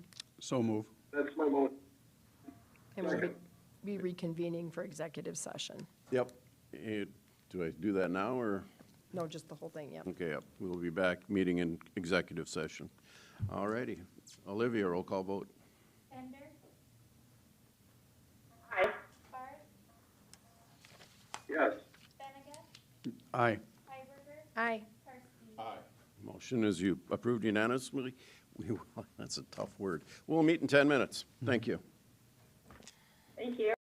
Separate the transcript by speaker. Speaker 1: So move.
Speaker 2: That's my motion.
Speaker 3: And we'll be be reconvening for executive session.
Speaker 4: Yep. Eh, Do I do that now, or?
Speaker 3: No, just the whole thing, yep.
Speaker 4: Okay, yep. We'll be back, meeting in executive session. All righty. Olivia, roll call vote.
Speaker 5: Bender? Aye. Barth?
Speaker 2: Yes.
Speaker 5: Benega?
Speaker 1: Aye.
Speaker 5: Hiberger?
Speaker 3: Aye.
Speaker 5: Karski?
Speaker 4: Motion is you approved unanimously. We, will- that's a tough word. We'll meet in 10 minutes. Thank you.
Speaker 5: Thank you.